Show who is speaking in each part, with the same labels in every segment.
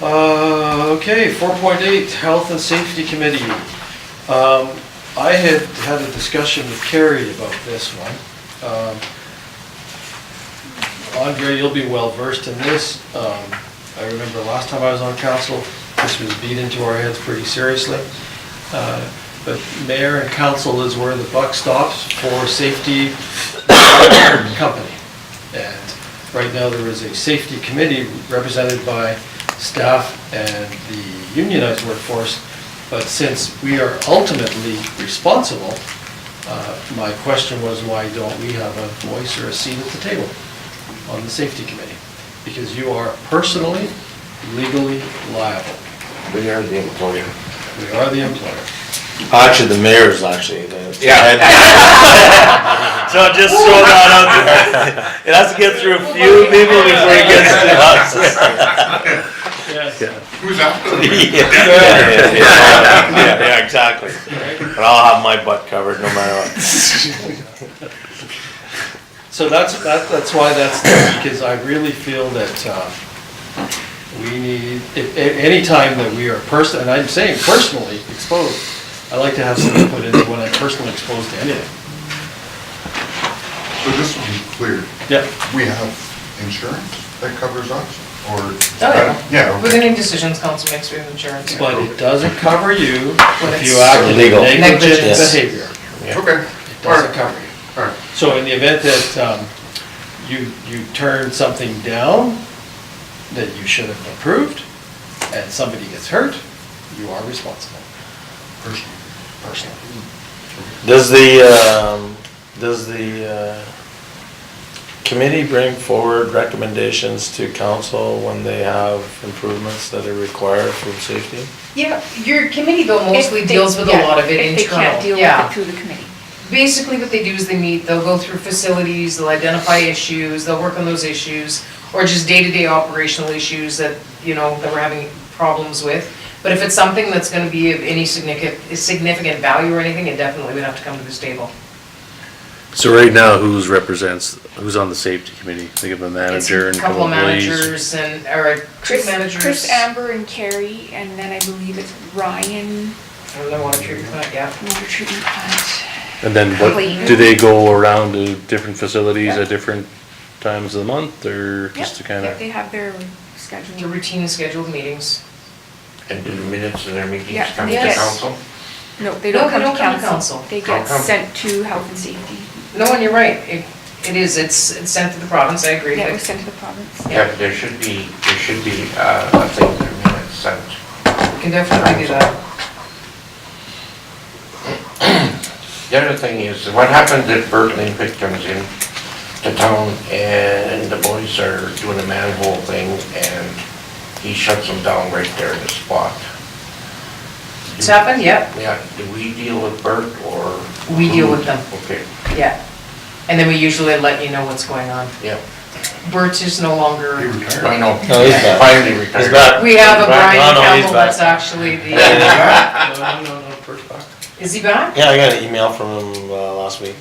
Speaker 1: Uh, okay, four point eight, Health and Safety Committee. Um, I had had a discussion with Carrie about this one. Um, Andre, you'll be well versed in this. Um, I remember last time I was on council, this was beat into our heads pretty seriously. Uh, But mayor and council is where the buck stops for safety company. And right now, there is a safety committee represented by staff and the unionized workforce. But since we are ultimately responsible, uh, my question was, why don't we have a voice or a seat at the table on the safety committee? Because you are personally, legally liable.
Speaker 2: We are the employer.
Speaker 1: We are the employer.
Speaker 2: Actually, the mayor is actually the.
Speaker 3: So just throw that out there. It has to get through a few people before it gets to us.
Speaker 4: Who's after?
Speaker 3: Yeah,
Speaker 2: Yeah.
Speaker 3: yeah, yeah, exactly. But I'll have my butt covered no matter what.
Speaker 1: So that's, that, that's why that's there, because I really feel that, um, we need, if, a- any time that we are person, and I'm saying personally exposed, I like to have some input into when I'm personally exposed to anything.
Speaker 4: So just to be clear,
Speaker 1: Yeah,
Speaker 4: we have insurance that covers us, or?
Speaker 5: Oh, yeah.
Speaker 4: Yeah,
Speaker 5: With
Speaker 4: okay.
Speaker 5: any decisions council makes, we have insurance.
Speaker 1: but it doesn't cover you
Speaker 5: When
Speaker 1: if you
Speaker 5: it's
Speaker 1: act in
Speaker 2: Illegal.
Speaker 1: negligent
Speaker 2: Negligence.
Speaker 1: behavior.
Speaker 4: Okay,
Speaker 1: It
Speaker 4: all
Speaker 1: doesn't
Speaker 4: right,
Speaker 1: cover you.
Speaker 4: all right.
Speaker 1: So in the event that um, you, you turn something down that you should have approved, and somebody gets hurt, you are responsible.
Speaker 4: Personal.
Speaker 1: Personally.
Speaker 2: Does the, um, does the, uh, committee bring forward recommendations to council when they have improvements that are required for safety?
Speaker 5: Yeah, your committee though mostly
Speaker 6: If they-
Speaker 5: deals with a
Speaker 6: yeah,
Speaker 5: lot of it
Speaker 6: if
Speaker 5: internal, yeah.
Speaker 6: they can't deal with it through the committee.
Speaker 5: Basically, what they do is they meet, they'll go through facilities, they'll identify issues, they'll work on those issues, or just day-to-day operational issues that, you know, that we're having problems with. But if it's something that's gonna be of any significant, significant value or anything, it definitely would have to come to this table.
Speaker 7: So right now, who's represents, who's on the safety committee? Think of a manager and
Speaker 5: It's
Speaker 7: a
Speaker 5: a couple of
Speaker 7: employees.
Speaker 5: managers and, or trip managers.
Speaker 6: Chris Amber and Carrie, and then I believe it's Ryan,
Speaker 5: I don't know, water treatment plant, yeah.
Speaker 6: water treatment plant.
Speaker 7: And then what, do they go around to different facilities at different times of the month or just to
Speaker 6: Yep,
Speaker 7: kind
Speaker 6: yep,
Speaker 7: of?
Speaker 6: They have their
Speaker 5: The
Speaker 6: schedule.
Speaker 5: routine scheduled meetings.
Speaker 2: And do the minutes of their meetings
Speaker 6: Yeah,
Speaker 2: come to
Speaker 6: they get-
Speaker 2: council?
Speaker 6: No, they
Speaker 5: No,
Speaker 6: don't
Speaker 5: they
Speaker 6: come to council.
Speaker 5: council.
Speaker 6: They
Speaker 2: How
Speaker 6: get
Speaker 2: come?
Speaker 6: sent to health and safety.
Speaker 5: No, and you're right, it, it is, it's, it's sent to the province, I agree.
Speaker 6: That
Speaker 5: but-
Speaker 6: was sent to the province.
Speaker 2: Yeah, but there should be, there should be, uh, a thing in their minutes, sent.
Speaker 5: Can definitely do that.
Speaker 2: The other thing is, what happens if Bert Pitt comes in to town and the boys are doing a manhole thing and he shuts them down right there in the spot?
Speaker 5: It's happened, yep,
Speaker 2: Yeah, do we deal with Bert or?
Speaker 5: We deal with them.
Speaker 2: Okay,
Speaker 5: yeah. And then we usually let you know what's going on.
Speaker 2: yeah.
Speaker 5: Bert is no
Speaker 4: He
Speaker 5: longer,
Speaker 4: retired.
Speaker 2: I know.
Speaker 8: No, he's back.
Speaker 2: Finally retired.
Speaker 8: He's back.
Speaker 5: we have a
Speaker 2: He's back.
Speaker 5: Brian
Speaker 8: No, no, he's
Speaker 5: Campbell
Speaker 8: back.
Speaker 5: that's actually the,
Speaker 2: Yeah,
Speaker 1: No, no, no, no, first back.
Speaker 5: is he back?
Speaker 8: Yeah, I got an email from him uh, last week.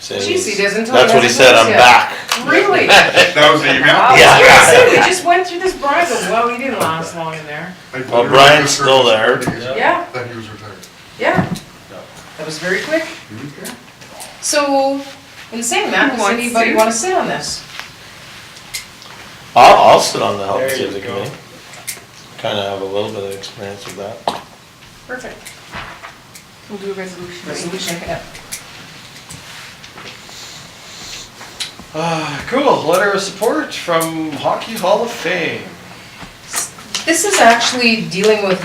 Speaker 8: Says-
Speaker 5: Jeez, he doesn't tell me
Speaker 8: That's what he
Speaker 5: that's
Speaker 8: said,
Speaker 5: his
Speaker 8: I'm
Speaker 5: voice
Speaker 8: back.
Speaker 5: Really?
Speaker 4: That was the email?
Speaker 5: Wow,
Speaker 8: Yeah.
Speaker 5: seriously, we just went through this bribe, but well, he didn't last long in there.
Speaker 4: Like,
Speaker 8: Well,
Speaker 4: literally
Speaker 8: Brian's
Speaker 4: just
Speaker 8: still there.
Speaker 4: That
Speaker 5: Yeah,
Speaker 4: he was retired.
Speaker 5: yeah. That was very quick. So, in saying that, does
Speaker 6: Wants
Speaker 5: anybody
Speaker 6: to.
Speaker 5: wanna sit on this?
Speaker 8: I'll, I'll sit on the health and
Speaker 1: There you
Speaker 8: safety
Speaker 1: go.
Speaker 8: committee. Kind of have a little bit of experience with that.
Speaker 5: Perfect.
Speaker 6: We'll do a resolution. right?
Speaker 5: Resolution, yeah.
Speaker 1: Ah, Cool, letter of support from Hockey Hall of Fame.
Speaker 5: This is actually dealing with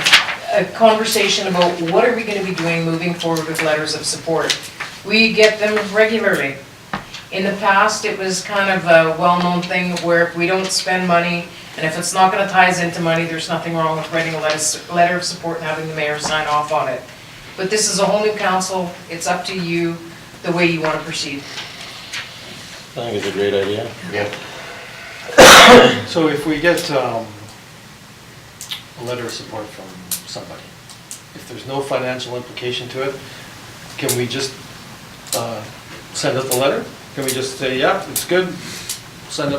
Speaker 5: a conversation about what are we gonna be doing moving forward with letters of support. We get them regularly. In the past, it was kind of a well-known thing where if we don't spend money, and if it's not gonna tie us into money, there's nothing wrong with writing a letter, letter of support and having the mayor sign off on it. But this is a whole new council, it's up to you, the way you wanna proceed.
Speaker 8: I think it's a great idea.
Speaker 2: Yeah.
Speaker 1: So if we get um, a letter of support from somebody, if there's no financial implication to it, can we just uh, send out the letter? Can we just say, yeah, it's good, send out